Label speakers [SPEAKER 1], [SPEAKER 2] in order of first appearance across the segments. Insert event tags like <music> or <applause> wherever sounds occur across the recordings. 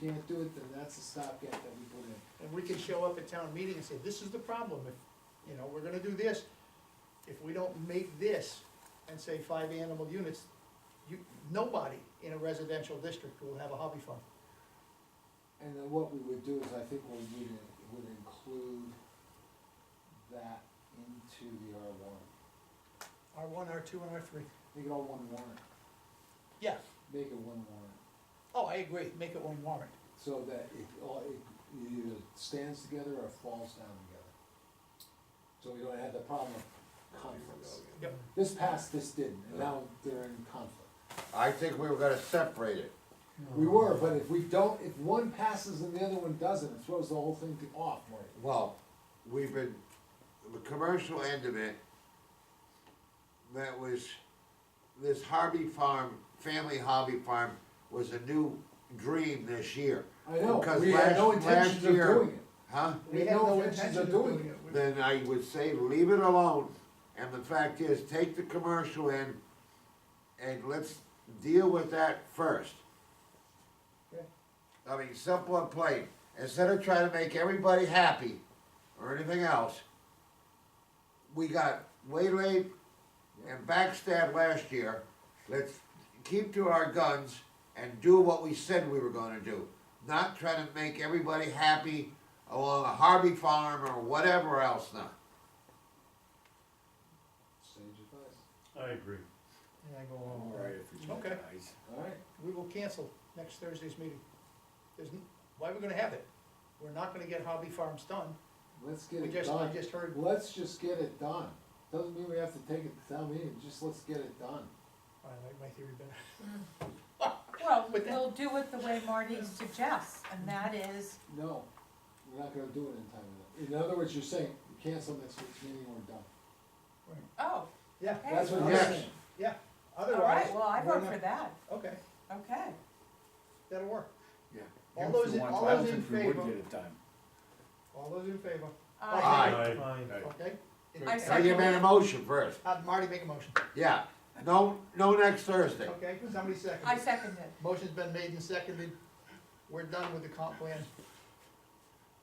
[SPEAKER 1] can't do it, then that's a stopgap that we put in.
[SPEAKER 2] And we can show up at town meeting and say, this is the problem, if, you know, we're gonna do this, if we don't make this and say five animal units, you, nobody in a residential district will have a hobby farm.
[SPEAKER 1] And then what we would do is, I think we would, would include that into the R one.
[SPEAKER 2] R one, R two, and R three.
[SPEAKER 1] Make it all one warrant,
[SPEAKER 2] Yeah,
[SPEAKER 1] make it one warrant,
[SPEAKER 2] oh, I agree, make it one warrant.
[SPEAKER 1] so that it, all- it either stands together or falls down together. So we don't have the problem of conflicts.
[SPEAKER 2] Yep.
[SPEAKER 1] This passed, this didn't, and now they're in conflict.
[SPEAKER 3] I think we were gonna separate it.
[SPEAKER 1] We were, but if we don't, if one passes and the other one doesn't, it throws the whole thing to- off, Marty.
[SPEAKER 3] Well, we've been, the commercial end of it, that was, this Harvey Farm, Family Hobby Farm was a new dream this year.
[SPEAKER 1] I know,
[SPEAKER 3] Because
[SPEAKER 1] we had
[SPEAKER 3] last-
[SPEAKER 1] no intentions
[SPEAKER 3] last
[SPEAKER 1] of
[SPEAKER 3] year-
[SPEAKER 1] doing it.
[SPEAKER 3] Huh?
[SPEAKER 1] We had no intention of doing it.
[SPEAKER 2] We-
[SPEAKER 3] Then I would say leave it alone, and the fact is, take the commercial end, and let's deal with that first.
[SPEAKER 1] Okay.
[SPEAKER 3] I mean, simple and plain, instead of trying to make everybody happy, or anything else, we got waylaid and backstabbed last year, let's keep to our guns and do what we said we were gonna do. Not try to make everybody happy along a Harvey farm or whatever else now.
[SPEAKER 1] Sage advice.
[SPEAKER 4] I agree.
[SPEAKER 2] And I go along with that.
[SPEAKER 4] Alright, if you
[SPEAKER 2] Okay.
[SPEAKER 4] guys.
[SPEAKER 1] Alright,
[SPEAKER 2] We will cancel next Thursday's meeting. There's, n- why are we gonna have it? We're not gonna get hobby farms done.
[SPEAKER 1] let's get
[SPEAKER 2] We
[SPEAKER 1] it
[SPEAKER 2] just, I
[SPEAKER 1] done.
[SPEAKER 2] just heard,
[SPEAKER 1] Let's just get it done. Doesn't mean we have to take it to town meeting, just let's get it done.
[SPEAKER 2] I like my theory better.
[SPEAKER 5] Well,
[SPEAKER 2] But that-
[SPEAKER 5] we'll do it the way Marty suggests, and that is,
[SPEAKER 1] No, we're not gonna do it in time. enough. In other words, you're saying, cancel next week's meeting, we're done.
[SPEAKER 5] oh,
[SPEAKER 2] Yeah,
[SPEAKER 5] okay.
[SPEAKER 1] That's what you're
[SPEAKER 3] Yes.
[SPEAKER 1] saying.
[SPEAKER 2] yeah,
[SPEAKER 5] All
[SPEAKER 2] otherwise.
[SPEAKER 5] right, well, I
[SPEAKER 2] we're
[SPEAKER 5] vote
[SPEAKER 2] not-
[SPEAKER 5] for that,
[SPEAKER 2] Okay,
[SPEAKER 5] okay.
[SPEAKER 2] that'll work.
[SPEAKER 4] Yeah.
[SPEAKER 2] All those in- all those in
[SPEAKER 4] I don't think we
[SPEAKER 2] favor?
[SPEAKER 4] would get it done.
[SPEAKER 2] All those in favor?
[SPEAKER 5] Uh,
[SPEAKER 4] Aye. Aye.
[SPEAKER 2] Okay?
[SPEAKER 5] I
[SPEAKER 3] Now you made a motion first,
[SPEAKER 2] Uh, Marty make a motion,
[SPEAKER 3] yeah, no, no next Thursday.
[SPEAKER 2] okay? Somebody second.
[SPEAKER 5] I second it.
[SPEAKER 2] Motion's been made and seconded. We're done with the comp plan.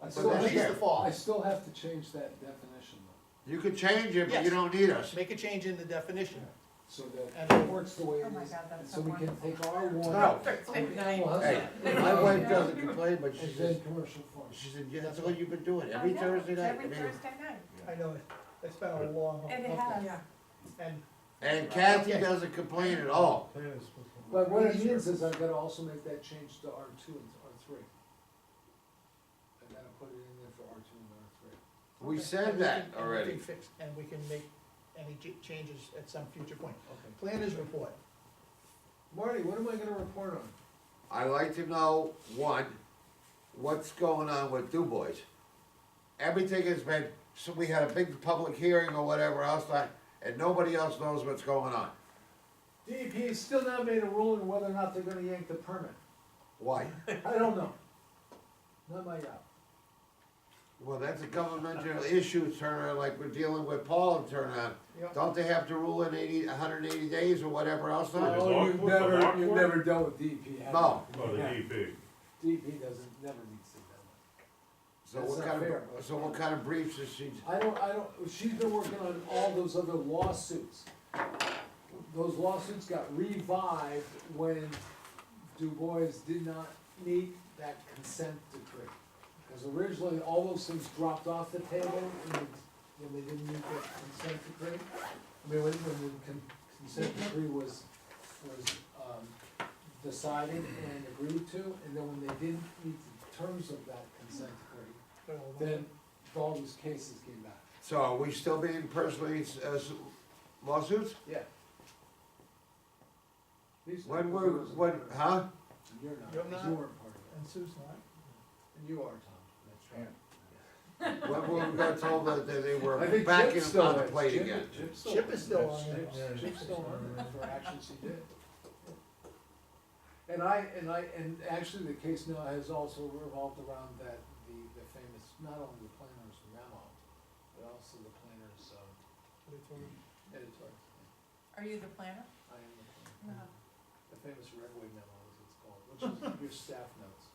[SPEAKER 1] I
[SPEAKER 2] But
[SPEAKER 1] still
[SPEAKER 3] at
[SPEAKER 1] have
[SPEAKER 3] least
[SPEAKER 1] to-
[SPEAKER 2] the fall.
[SPEAKER 1] I still have to change that definition though,
[SPEAKER 3] You could change it, but you
[SPEAKER 2] Yes.
[SPEAKER 3] don't need us.
[SPEAKER 2] Make a change in the definition.
[SPEAKER 1] so that
[SPEAKER 2] And-
[SPEAKER 1] it works the way it
[SPEAKER 5] Oh my
[SPEAKER 1] is,
[SPEAKER 5] God, that's
[SPEAKER 1] and
[SPEAKER 5] so
[SPEAKER 1] so we can
[SPEAKER 5] wonderful.
[SPEAKER 1] take our warrant.
[SPEAKER 3] No.
[SPEAKER 5] <laughs> It's midnight.
[SPEAKER 1] Well,
[SPEAKER 3] Hey,
[SPEAKER 1] that's-
[SPEAKER 3] my wife doesn't complain, but she
[SPEAKER 1] And
[SPEAKER 3] says,
[SPEAKER 1] then
[SPEAKER 5] <laughs>
[SPEAKER 1] commercial farms.
[SPEAKER 3] she said, yeah, that's what you've been doing,
[SPEAKER 5] I
[SPEAKER 3] every
[SPEAKER 5] know,
[SPEAKER 3] Thursday night.
[SPEAKER 5] Every Thursday night,
[SPEAKER 2] I Oh, know, it- it's been a long.
[SPEAKER 5] and it has,
[SPEAKER 2] And
[SPEAKER 3] And Kathy doesn't complain at all.
[SPEAKER 1] But what it means is I've gotta also make that change to R two and R three. I gotta put it in there for R two and R three.
[SPEAKER 3] We
[SPEAKER 2] Okay.
[SPEAKER 3] said
[SPEAKER 2] And
[SPEAKER 3] that
[SPEAKER 2] can- and we
[SPEAKER 3] already.
[SPEAKER 2] can fix- And we can make any ch- changes at some future point.
[SPEAKER 1] Okay.
[SPEAKER 2] Planners report.
[SPEAKER 1] Marty, what am I gonna report on?
[SPEAKER 3] I'd like to know, one, what's going on with Du Bois? Everything has been, so we had a big public hearing or whatever else, like, and nobody else knows what's going on.
[SPEAKER 1] DEP E has still not made a ruling whether or not they're gonna yank the permit. <laughs>
[SPEAKER 3] Why?
[SPEAKER 1] I don't know. Not my job.
[SPEAKER 3] Well, that's a governmental issue, Turner, like we're dealing with Paul and Turner.
[SPEAKER 2] Yeah.
[SPEAKER 3] Don't they have to rule in eighty, hundred and eighty days or whatever else?
[SPEAKER 4] Well,
[SPEAKER 3] on it?
[SPEAKER 4] there's law-
[SPEAKER 1] Oh, you've
[SPEAKER 4] what's the law
[SPEAKER 1] never, you've
[SPEAKER 4] court?
[SPEAKER 1] never dealt with DEP, have you?
[SPEAKER 3] No,
[SPEAKER 4] Oh, the
[SPEAKER 1] Yeah.
[SPEAKER 4] DEP.
[SPEAKER 1] DEP doesn't, never needs to do that.
[SPEAKER 3] so
[SPEAKER 1] That's
[SPEAKER 3] what
[SPEAKER 1] not
[SPEAKER 3] kind
[SPEAKER 1] fair.
[SPEAKER 3] of, so what kind of briefs is she,
[SPEAKER 1] I don't, I don't, she's been working on all those other lawsuits. Those lawsuits got revived when Du Bois did not meet that consent decree. Because originally, all those things dropped off the table when, when they didn't meet that consent decree. I mean, when, when the con- consent decree was, was, um, decided and agreed to, and then when they didn't meet the terms of that consent decree, then all those cases came back.
[SPEAKER 3] so are we still being personally, uh, s- lawsuits?
[SPEAKER 1] Yeah.
[SPEAKER 3] When were, when, huh?
[SPEAKER 1] You're not,
[SPEAKER 2] You're
[SPEAKER 1] 'cause
[SPEAKER 2] not?
[SPEAKER 1] you weren't part of it,
[SPEAKER 2] And Sue's not.
[SPEAKER 1] and you are, Tom, that's right.
[SPEAKER 3] When were we got told that that they were
[SPEAKER 1] I think
[SPEAKER 3] back
[SPEAKER 1] Chip's
[SPEAKER 3] in,
[SPEAKER 1] still
[SPEAKER 3] on the
[SPEAKER 1] is.
[SPEAKER 3] plate
[SPEAKER 1] Chip-
[SPEAKER 3] again?
[SPEAKER 1] Chip's
[SPEAKER 2] Chip is still on it.
[SPEAKER 1] Chip's-
[SPEAKER 2] Yeah.
[SPEAKER 1] Chip's still on it for actions he did. And I, and I, and actually the case now has also revolved around that, the, the famous, not only the planner's memo, but also the planner's, um, editor.
[SPEAKER 5] are you the planner?
[SPEAKER 2] <laughs>
[SPEAKER 1] I am the planner. The famous Redway memo, as it's called, which is your staff memo.